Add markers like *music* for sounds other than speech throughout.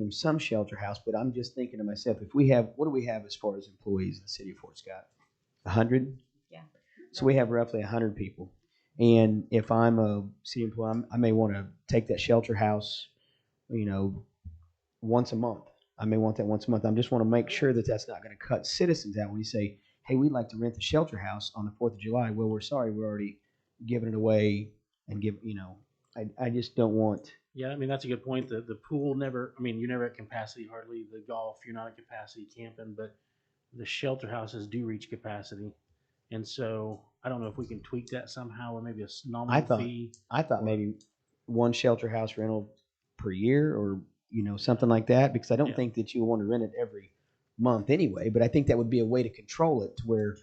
through some shelter house, but I'm just thinking to myself, if we have, what do we have as far as employees in the city of Fort Scott? A hundred? Yeah. So we have roughly a hundred people. And if I'm a city employee, I'm- I may want to take that shelter house, you know, once a month. I may want that once a month. I just want to make sure that that's not going to cut citizens out when you say, hey, we'd like to rent the shelter house on the Fourth of July. Well, we're sorry, we're already giving it away and give, you know, I, I just don't want, Yeah, I mean, that's a good point. The, the pool never, I mean, you're never at capacity hardly. The golf, you're not at capacity camping, but the shelter houses do reach capacity. And so I don't know if we can tweak that somehow or maybe a s- I nominal thought- fee. I thought maybe one shelter house rental per year or, you know, something like that, because I don't Yeah. think that you want to rent it every month anyway, but I think that would be a way to control it to where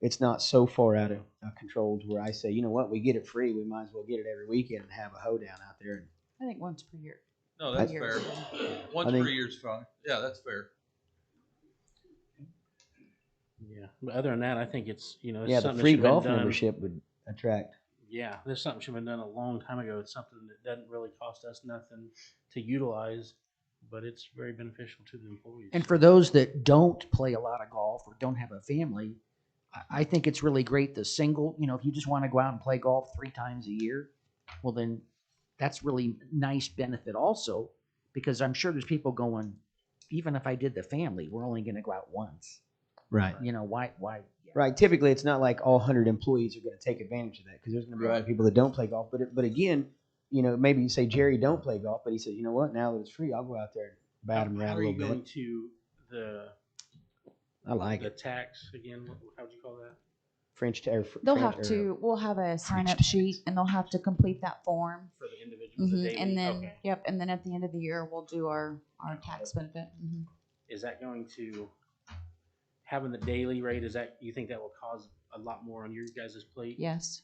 it's not so far out of of control to where I say, you know what, we get it free, we might as well get it every weekend and have a hoedown out there. And I think once per year. No, that's I- fair. Once I think- per year's fine. Yeah, that's fair. Yeah. But other than that, I think it's, you know, it's Yeah, the something free that should've been golf done- membership would attract. Yeah, there's something should have been done a long time ago. It's something that doesn't really cost us nothing to utilize, but it's very beneficial to the employees. And for those that don't play a lot of golf or don't have a family, I, I think it's really great. The single, you know, if you just want to go out and play golf three times a year, well, then that's really nice benefit also, because I'm sure there's people going, even if I did the family, we're only going to go out once. Right. You know, why? Why? Right. Typically, it's not like all 100 employees are going to take advantage of that because there's going to be a lot of people that don't play golf. But it- but again, you know, maybe you say Jerry don't play golf, but he says, you know what? Now that it's free, I'll go out there and bat him How- around how a are you little going bit. to the I like the it. tax again? What, how'd you call that? French ta- or fr- They'll French- have or to, we'll have a sign up tax. sheet and they'll have to complete that form. For the individual, the hmm daily? And then, Okay. yep, and then at the end of the year, we'll do our, our tax benefit. hmm is that going to having the daily rate is that you think that will cause a lot more on your guys' plate Yes.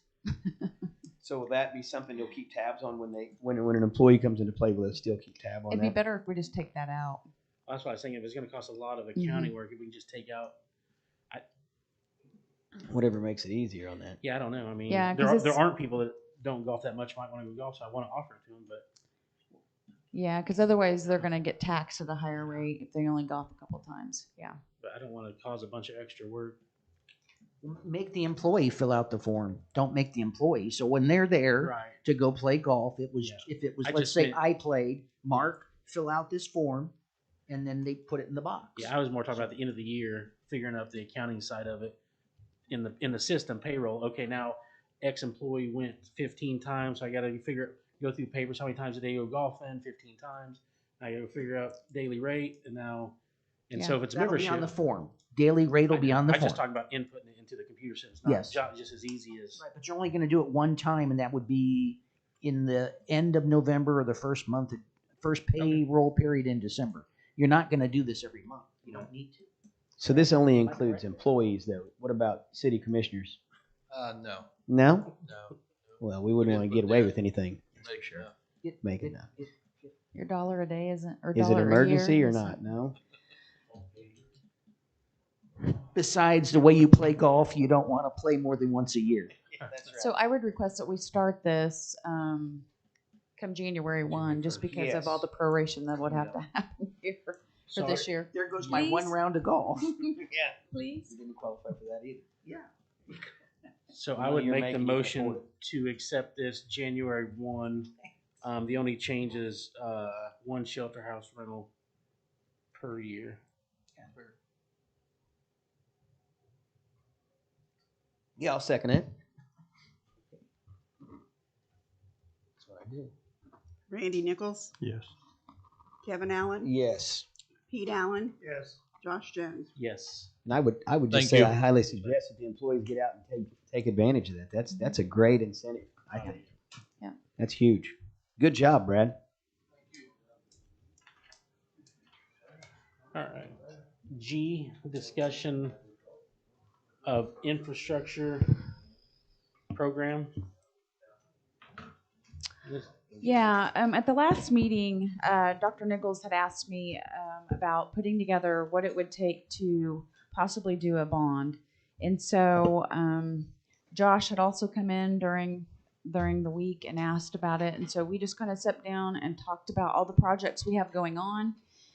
So will that be something you'll keep tabs on when they when when an employee comes into play? Will they still keep tab on It'd be that? better if we just take that out. that's why i was thinking if it's going to cost a lot of Mm-hmm. accounting work if we can just take out Whatever makes it easier on that. yeah i don't know i mean Yeah, there, 'cause are, there it's- aren't people that don't golf that much might want to go golf so i want to offer it to them but Yeah, because otherwise they're gonna get taxed at a higher rate if they only golf a couple times. Yeah. but i don't want to cause a bunch of extra work Make the employee fill out the form. Don't make the employee. So when they're there, right to go play golf. It was Yeah. if it was I let's just say meant- I played, Mark, fill out this form, and then they put it in the box. yeah i was more talking about the end of the year figuring out the accounting side of it in the in the system payroll okay now ex employee went 15 times so i gotta figure go through papers how many times a day you go golfing 15 times i gotta figure out daily rate and now and so Yeah. if it's That'll be membership on the form. Daily rate will be on the I form. just talking about inputting it into the computer system. It's not Yes. jo- just as easy as Right, but you're only going to do it one time, and that would be in the end of November or the first month, first payroll period in December. You're not going to do this every month. You don't need to. So this only includes employees, though. What about city commissioners? Uh, no, No. no. Well, we wouldn't Just want to put get away that- with anything. Make sure. It- Make it it- now. it- Your dollar a day isn't, or Is it dollar a year. emergency or isn't- not? No. Besides the way you play golf, you don't want to play more than once a year. So I would request that we start this, um, come January one, just because of all Yes. the proration that would have to happen here for this Sorry. year. There goes my one Please. round *laughs* of *laughs* golf. Please? didn't qualify for that either. Yeah. So The I money would you're make the making, you can motion afford to accept this January one. Um, the only change is, uh, one shelter house rental per year. Yeah, I'll second it. That's what I did. Randy Nichols? Yes. Kevin Allen? Yes, Pete Allen? Yes. Josh Jones? Yes. and I would, I would just Thank say you. I highly suggest that the employees get out and take take advantage of that. That's that's a great incentive. I think. Yeah. That's huge. Good job, Brad. All right. G, discussion of infrastructure program. This- Yeah, um, at the last meeting, uh, Dr. Nichols had asked me, um, about putting together what it would take to possibly do a bond. And so, um, Josh had also come in during, during the week and asked about it. And so we just kind of sat down and talked about all the projects we have going on